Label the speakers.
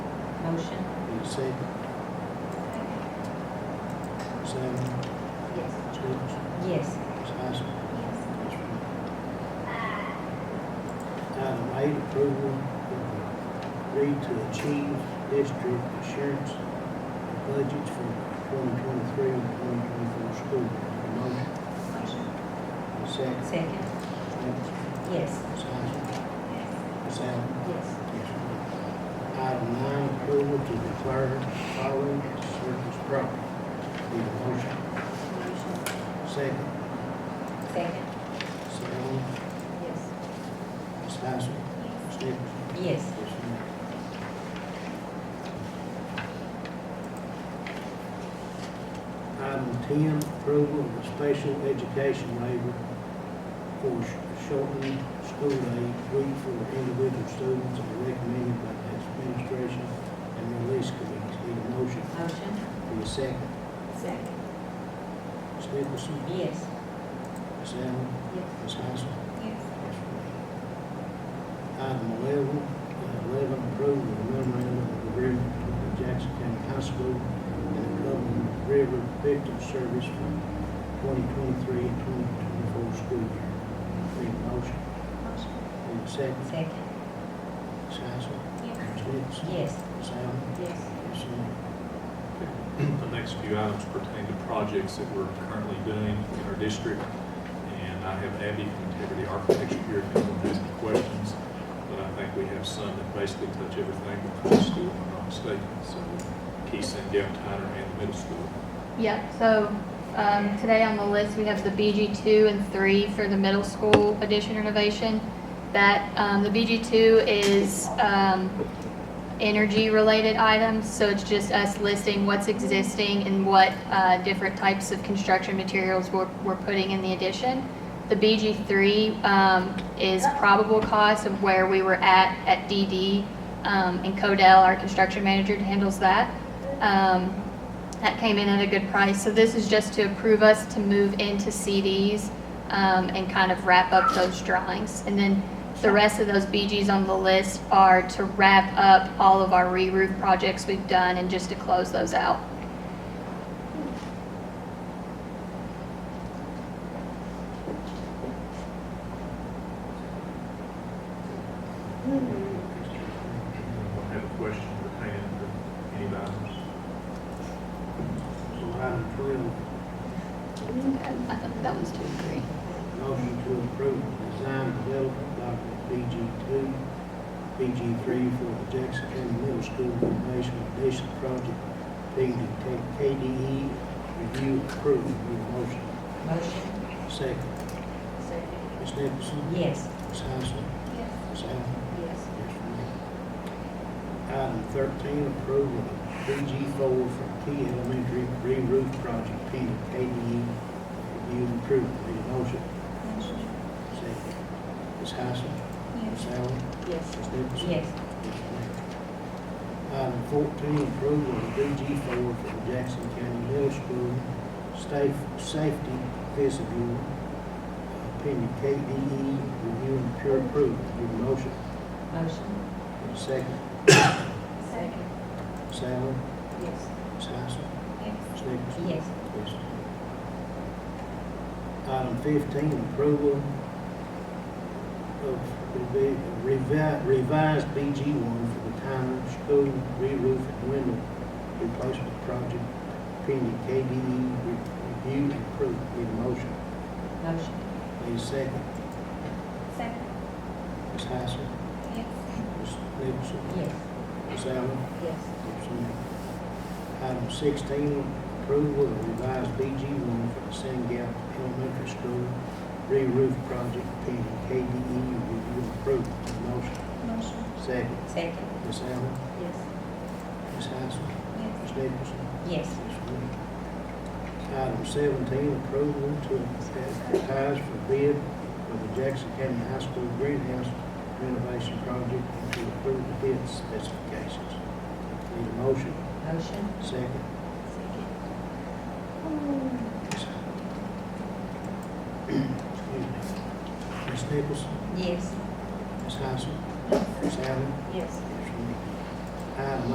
Speaker 1: Motion?
Speaker 2: Need a second? Sam,
Speaker 1: Yes.
Speaker 2: Stevens,
Speaker 1: Yes.
Speaker 2: Ms. Hyson,
Speaker 1: Yes.
Speaker 2: Ms. Reynolds. Item eight, approval of the agreed to achieve district insurance budgets for twenty twenty-three and twenty twenty-four school. year. Motion,
Speaker 1: Motion?
Speaker 2: need a second?
Speaker 1: Second?
Speaker 2: Stevens,
Speaker 1: Yes.
Speaker 2: Ms. Hyson, Ms. Allen.
Speaker 1: Yes.
Speaker 2: Item nine, approval to declare following as surplus property. Need a motion?
Speaker 1: Motion?
Speaker 2: Second.
Speaker 1: Second?
Speaker 2: Second.
Speaker 1: Yes.
Speaker 2: Ms. Hyson. Ms. Nichols.
Speaker 1: Yes.
Speaker 2: Yes, ma'am. Item ten, approval of the special education waiver for sh- shortened school day week for individual students as recommended by the administration and release committees. Need a motion?
Speaker 1: Motion?
Speaker 2: Need a second?
Speaker 1: Second?
Speaker 2: Ms. Nicholson,
Speaker 1: Yes.
Speaker 2: Ms. Allen,
Speaker 1: Yes.
Speaker 2: Ms. Hyson.
Speaker 1: Yes.
Speaker 2: Item eleven, uh, eleven, approval of memorandum of agreement between the Jackson County High School and the Cumberland River Victim Service for twenty twenty-three and twenty twenty-four school year. Need a motion,
Speaker 1: Motion?
Speaker 2: need a second,
Speaker 1: Second?
Speaker 2: Ms. Hyson,
Speaker 1: Yes.
Speaker 2: Ms. Nicholson,
Speaker 1: Yes.
Speaker 2: Ms. Allen,
Speaker 1: Yes.
Speaker 2: Ms. Allen.
Speaker 3: The next few items pertain to projects that we're currently doing in our district. And I have Abby from Integrity Architecture here if anyone has any questions. But I think we have some that basically touch everything in the high school, if I'm not mistaken. So Keith and Gavin and the middle school.
Speaker 4: Yeah, so um, today on the list, we have the BG2 and 3 for the middle school addition renovation. That, um, the BG2 is um, energy-related items, so it's just us listing what's existing and what uh, different types of construction materials we're we're putting in the addition. The BG3 um, is probable cost of where we were at at DD, um, and Codell, our construction manager, handles that. Um, that came in at a good price. So this is just to approve us to move into CDs um, and kind of wrap up those drawings. And then the rest of those BGs on the list are to wrap up all of our re-roof projects we've done and just to close those out.
Speaker 3: Anyone have a question pertaining to any of the items?
Speaker 2: So item twelve,
Speaker 4: I thought that was two and three.
Speaker 2: motion to approve the design development document BG two, BG three for the Jackson County Middle School renovation addition project being to take KDE E review approved. Need a motion?
Speaker 1: Motion?
Speaker 2: Second.
Speaker 1: Second?
Speaker 2: Ms. Nicholson?
Speaker 1: Yes.
Speaker 2: Ms. Hyson?
Speaker 1: Yes.
Speaker 2: Ms. Allen?
Speaker 1: Yes.
Speaker 2: Yes, ma'am. Item thirteen, approval of BG four for Key Elementary re-roof project pending KDE review and approval. Need a motion?
Speaker 1: Motion?
Speaker 2: Second. Ms. Hyson? Ms.
Speaker 1: Yes.
Speaker 2: Allen?
Speaker 1: Yes.
Speaker 2: Ms. Nicholson?
Speaker 1: Yes.
Speaker 2: Yes, ma'am. Item fourteen, approval of BG four for the Jackson County Middle School safe, safety vestibule uh, pending KDE review and peer approval. Need a motion?
Speaker 1: Motion?
Speaker 2: Need a second?
Speaker 1: Second?
Speaker 2: Ms. Allen?
Speaker 1: Yes.
Speaker 2: Ms. Hyson?
Speaker 1: Yes.
Speaker 2: Ms. Nicholson?
Speaker 1: Yes.
Speaker 2: Item fifteen, approval of revi- revi- revised BG one for the Tyner School re-roof and window replacement project pending KDE re- review and approval. Need a motion?
Speaker 1: Motion?
Speaker 2: Need a second?
Speaker 1: Second?
Speaker 2: Ms. Hyson?
Speaker 1: Yes.
Speaker 2: Ms. Nicholson?
Speaker 1: Yes.
Speaker 2: Ms. Allen?
Speaker 1: Yes.
Speaker 2: Item sixteen, approval of revised BG one for the San Gap Elementary School re-roof project pending KDE review and approval. Motion,
Speaker 1: Motion?
Speaker 2: second.
Speaker 1: Second?
Speaker 2: Ms. Allen,
Speaker 1: Yes.
Speaker 2: Ms. Hyson,
Speaker 1: Yes.
Speaker 2: Ms. Nicholson.
Speaker 1: Yes.
Speaker 2: Ms. Williams. Item seventeen, approval to advertise for bid for the Jackson County High School greenhouse renovation project and to approve the bid specifications. Need a motion,
Speaker 1: Motion?
Speaker 2: second.
Speaker 1: Second?
Speaker 2: Excuse me. Ms. Nichols,
Speaker 1: Yes.
Speaker 2: Ms. Hyson, Ms. Allen,
Speaker 1: Yes.
Speaker 2: Item